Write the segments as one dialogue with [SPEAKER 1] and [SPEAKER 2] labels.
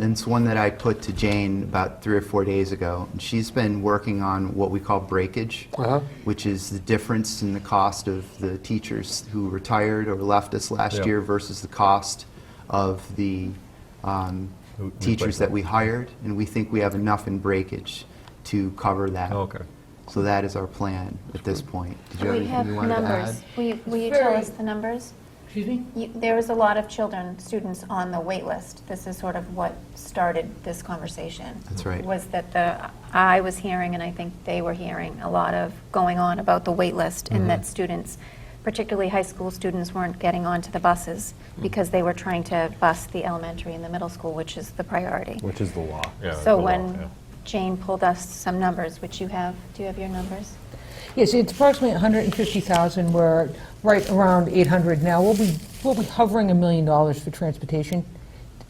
[SPEAKER 1] And It's one that I put to Jane about three or four days ago. And she's been working on what we call breakage,
[SPEAKER 2] Uh-huh.
[SPEAKER 1] which is the difference in the cost of the teachers who retired or left us last
[SPEAKER 3] Yeah.
[SPEAKER 1] year versus the cost of the um,
[SPEAKER 3] Who-
[SPEAKER 1] teachers
[SPEAKER 3] replacement.
[SPEAKER 1] that we hired. And we think we have enough in breakage to cover that.
[SPEAKER 3] Okay.
[SPEAKER 1] So that is our plan at this point. Did you have
[SPEAKER 4] We have
[SPEAKER 1] anything you wanted to add?
[SPEAKER 4] numbers. Will you, will you tell us the numbers?
[SPEAKER 5] Excuse me?
[SPEAKER 4] You- There was a lot of children, students on the wait list. This is sort of what started this conversation.
[SPEAKER 1] That's right.
[SPEAKER 4] Was that the, I was hearing, and I think they were hearing, a lot of going on about the wait list and
[SPEAKER 1] Mm-hmm.
[SPEAKER 4] that students, particularly high school students, weren't getting onto the buses because they were trying to bus the elementary and the middle school, which is the priority.
[SPEAKER 6] Which is the law.
[SPEAKER 3] Yeah,
[SPEAKER 4] So
[SPEAKER 3] the law,
[SPEAKER 4] when
[SPEAKER 3] yeah.
[SPEAKER 4] Jane pulled us some numbers, which you have, do you have your numbers?
[SPEAKER 5] Yes, it's approximately 150,000, we're right around 800 now. We'll be, we'll be hovering a million dollars for transportation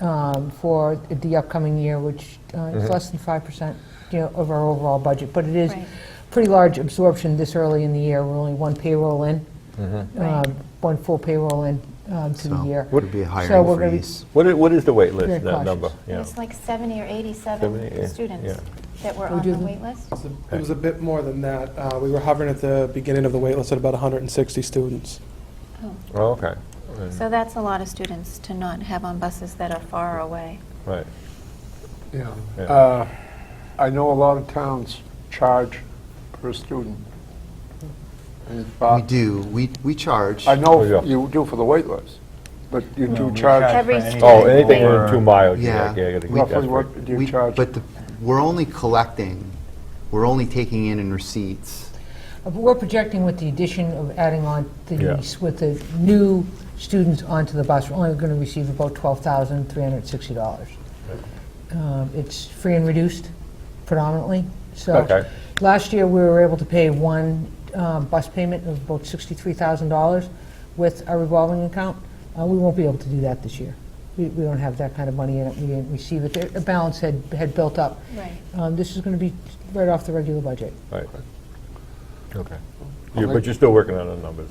[SPEAKER 5] um, for the upcoming year, which uh,
[SPEAKER 1] Mm-hmm.
[SPEAKER 5] is less than 5%, you know, of our overall budget. But it is
[SPEAKER 4] Right.
[SPEAKER 5] pretty large absorption this early in the year, we're only one payroll in,
[SPEAKER 4] Right.
[SPEAKER 5] um, one full payroll in um, to the
[SPEAKER 1] Mm-hmm. So
[SPEAKER 5] year.
[SPEAKER 1] Would be a
[SPEAKER 5] So
[SPEAKER 1] hiring
[SPEAKER 5] we're gonna be-
[SPEAKER 1] freeze.
[SPEAKER 3] What is, what is the wait list,
[SPEAKER 5] Very
[SPEAKER 3] that number?
[SPEAKER 5] cautious.
[SPEAKER 4] It
[SPEAKER 3] Yeah.
[SPEAKER 4] was like 70 or
[SPEAKER 3] Seventy, yeah,
[SPEAKER 4] 87 students
[SPEAKER 3] yeah.
[SPEAKER 4] that were
[SPEAKER 5] Who
[SPEAKER 4] on the
[SPEAKER 5] did the-
[SPEAKER 4] wait list.
[SPEAKER 6] It was a- It was a bit more than that. Uh, We were hovering at the beginning of the waitlist at about 160 students.
[SPEAKER 3] Oh, okay,
[SPEAKER 4] So that's a lot of students to not have on buses that are far away.
[SPEAKER 3] right.
[SPEAKER 7] Yeah.
[SPEAKER 3] Yeah.
[SPEAKER 7] Uh, I know a lot of towns charge per student. And it's
[SPEAKER 1] We
[SPEAKER 7] about-
[SPEAKER 1] do. We, we charge.
[SPEAKER 7] I
[SPEAKER 3] Oh, yeah.
[SPEAKER 7] know you do for the wait list, but you do charge
[SPEAKER 4] Every
[SPEAKER 8] For
[SPEAKER 4] student.
[SPEAKER 3] Oh, anything
[SPEAKER 8] over-
[SPEAKER 3] within two miles,
[SPEAKER 1] Yeah.
[SPEAKER 3] yeah, yeah, yeah. that's
[SPEAKER 7] roughly
[SPEAKER 3] right.
[SPEAKER 7] what do
[SPEAKER 1] We-
[SPEAKER 7] you charge?
[SPEAKER 1] But the- we're only collecting, we're only taking in in receipts.
[SPEAKER 5] Uh, But we're projecting with the addition of adding on
[SPEAKER 3] Yeah.
[SPEAKER 5] the, s- with the new students onto the bus, we're only going to receive about $12,360. Um, It's free and reduced predominantly, so.
[SPEAKER 3] Okay.
[SPEAKER 5] Last year, we were able to pay one um, bus payment of about $63,000 with our revolving account. Uh, We won't be able to do that this year. We we don't have that kind of money in it, we didn't receive it. The- The balance had, had built up.
[SPEAKER 4] Right.
[SPEAKER 5] Um, This is going to be right off the regular budget.
[SPEAKER 3] Right. Okay. You- But you're still working on the numbers?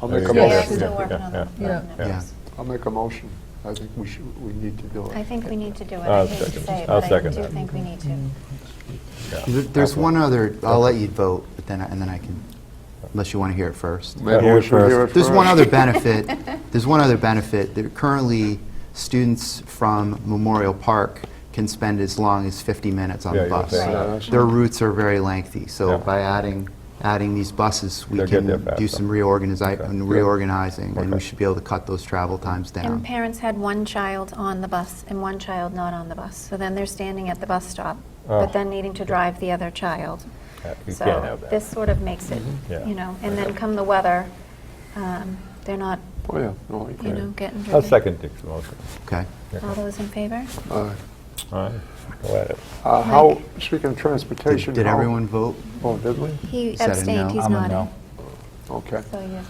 [SPEAKER 7] I'll make a
[SPEAKER 3] Yeah,
[SPEAKER 4] Yeah, they're
[SPEAKER 7] motion.
[SPEAKER 4] still working on the
[SPEAKER 3] yeah,
[SPEAKER 5] yeah.
[SPEAKER 4] the
[SPEAKER 3] yeah.
[SPEAKER 4] numbers.
[SPEAKER 7] I'll make a motion. I think we should, we need to do
[SPEAKER 4] I
[SPEAKER 7] it.
[SPEAKER 4] think we need to do it. I
[SPEAKER 3] I'll
[SPEAKER 4] hate to
[SPEAKER 3] second-
[SPEAKER 4] say it,
[SPEAKER 3] I'll
[SPEAKER 4] but I
[SPEAKER 3] second
[SPEAKER 4] do
[SPEAKER 3] that.
[SPEAKER 4] think we need to.
[SPEAKER 1] There- There's one other, I'll let you vote, but then, I- and then I can, unless you want to hear it first.
[SPEAKER 7] Maybe
[SPEAKER 6] Hear
[SPEAKER 7] we
[SPEAKER 6] it
[SPEAKER 7] should hear
[SPEAKER 6] first.
[SPEAKER 7] it
[SPEAKER 1] There's one
[SPEAKER 7] first.
[SPEAKER 1] other benefit, there's one other benefit. There currently, students from Memorial Park can spend as long as 50 minutes on
[SPEAKER 3] Yeah,
[SPEAKER 1] the
[SPEAKER 3] you
[SPEAKER 1] bus.
[SPEAKER 3] said
[SPEAKER 7] that.
[SPEAKER 1] Their routes are very lengthy,
[SPEAKER 3] Yeah.
[SPEAKER 1] so by adding, adding these buses, we
[SPEAKER 3] They'll get
[SPEAKER 1] can
[SPEAKER 3] there
[SPEAKER 1] do
[SPEAKER 3] faster.
[SPEAKER 1] some reorganizi- and reorganizing, and we
[SPEAKER 3] Okay.
[SPEAKER 1] should be able to cut those travel times down.
[SPEAKER 4] And parents had one child on the bus and one child not on the bus. So then they're standing at the bus stop,
[SPEAKER 3] Oh.
[SPEAKER 4] but then needing to drive the other child.
[SPEAKER 3] Yeah, You
[SPEAKER 4] So
[SPEAKER 3] can't have that. Mm-hmm.
[SPEAKER 4] This sort of makes it,
[SPEAKER 3] Yeah.
[SPEAKER 4] you know, and then come the weather, um, they're not,
[SPEAKER 7] Oh, yeah. No, you
[SPEAKER 4] you know,
[SPEAKER 7] can.
[SPEAKER 4] getting driven.
[SPEAKER 3] I'll second Dick's motion.
[SPEAKER 1] Okay?
[SPEAKER 4] All those in favor?
[SPEAKER 7] All right.
[SPEAKER 3] All right, go at it.
[SPEAKER 7] Uh, How, speaking of transportation.
[SPEAKER 1] Did did
[SPEAKER 7] how-
[SPEAKER 1] everyone vote?
[SPEAKER 7] Oh, did we?
[SPEAKER 4] He
[SPEAKER 1] that a no?
[SPEAKER 4] abstained, he's
[SPEAKER 8] I'm a
[SPEAKER 4] not in.
[SPEAKER 8] no.
[SPEAKER 7] Okay.
[SPEAKER 4] So he is.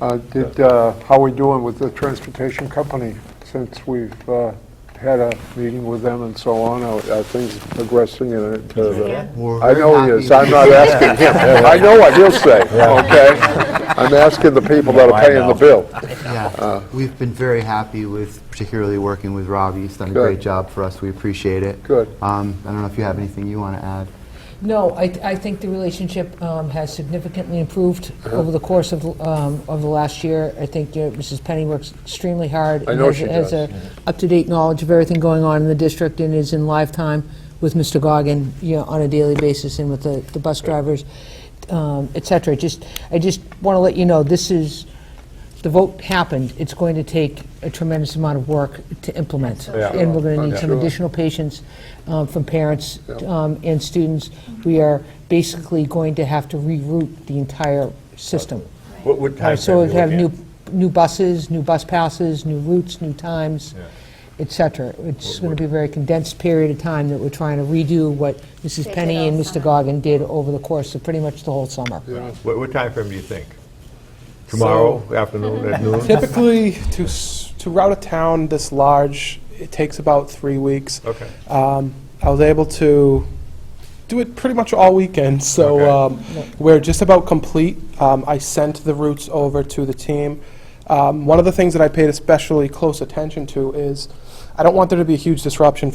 [SPEAKER 7] Uh, Did, uh, how we doing with the transportation company since we've uh, had a meeting with them and so on? Are are things progressing in a- to the-
[SPEAKER 1] We're
[SPEAKER 7] I
[SPEAKER 1] very
[SPEAKER 7] know he
[SPEAKER 1] happy
[SPEAKER 7] is, I'm not asking him. I know what he'll say, okay? I'm asking the people that
[SPEAKER 8] Yeah,
[SPEAKER 7] are
[SPEAKER 8] I
[SPEAKER 7] paying the
[SPEAKER 8] know.
[SPEAKER 7] bill. Uh,
[SPEAKER 1] Yeah, we've been very happy with, particularly working with Rob. He's done a
[SPEAKER 7] Good.
[SPEAKER 1] great job for us. We appreciate it.
[SPEAKER 7] Good.
[SPEAKER 1] Um, I don't know if you have anything you want to add.
[SPEAKER 5] No, I, I think the relationship um, has significantly improved
[SPEAKER 7] Uh-huh.
[SPEAKER 5] over the course of, um, of the last year. I think you know, Mrs. Penny works extremely hard.
[SPEAKER 7] I
[SPEAKER 5] and
[SPEAKER 7] know
[SPEAKER 5] has-
[SPEAKER 7] she
[SPEAKER 5] Has
[SPEAKER 7] does.
[SPEAKER 5] a up-to-date knowledge of everything going on in the district and is in lifetime with Mr. Goggin, you know, on a daily basis and with the, the bus drivers, um, et cetera. Just, I just want to let you know, this is, the vote happened. It's going to take a tremendous amount of work to implement.
[SPEAKER 3] Yeah.
[SPEAKER 5] And we're going to need some
[SPEAKER 7] Sure.
[SPEAKER 5] additional additional patients um, from parents um, and students. We are basically going to have to reroute the entire system.
[SPEAKER 3] What, what
[SPEAKER 5] Uh,
[SPEAKER 3] time?
[SPEAKER 5] So we'll have new, new buses, new bus passes, new routes, new times,
[SPEAKER 3] Yeah.
[SPEAKER 5] et cetera. It's going to be a very condensed period of time that we're trying to redo what
[SPEAKER 4] They
[SPEAKER 5] Mrs.
[SPEAKER 4] did
[SPEAKER 5] Penny and
[SPEAKER 4] all
[SPEAKER 5] Mr.
[SPEAKER 4] summer.
[SPEAKER 5] Goggin did over the course of pretty much the whole summer.
[SPEAKER 3] What, what timeframe do you think? Tomorrow afternoon at noon?
[SPEAKER 6] Typically, to, s- to route a town this large, it takes about three weeks.
[SPEAKER 3] Okay.
[SPEAKER 6] Um, I was able to do it pretty much all weekend, so
[SPEAKER 3] Okay.
[SPEAKER 6] um, we're just about complete. Um, I sent the routes over to the team. Um, one of the things that I paid especially close attention to is I don't want there to be a huge disruption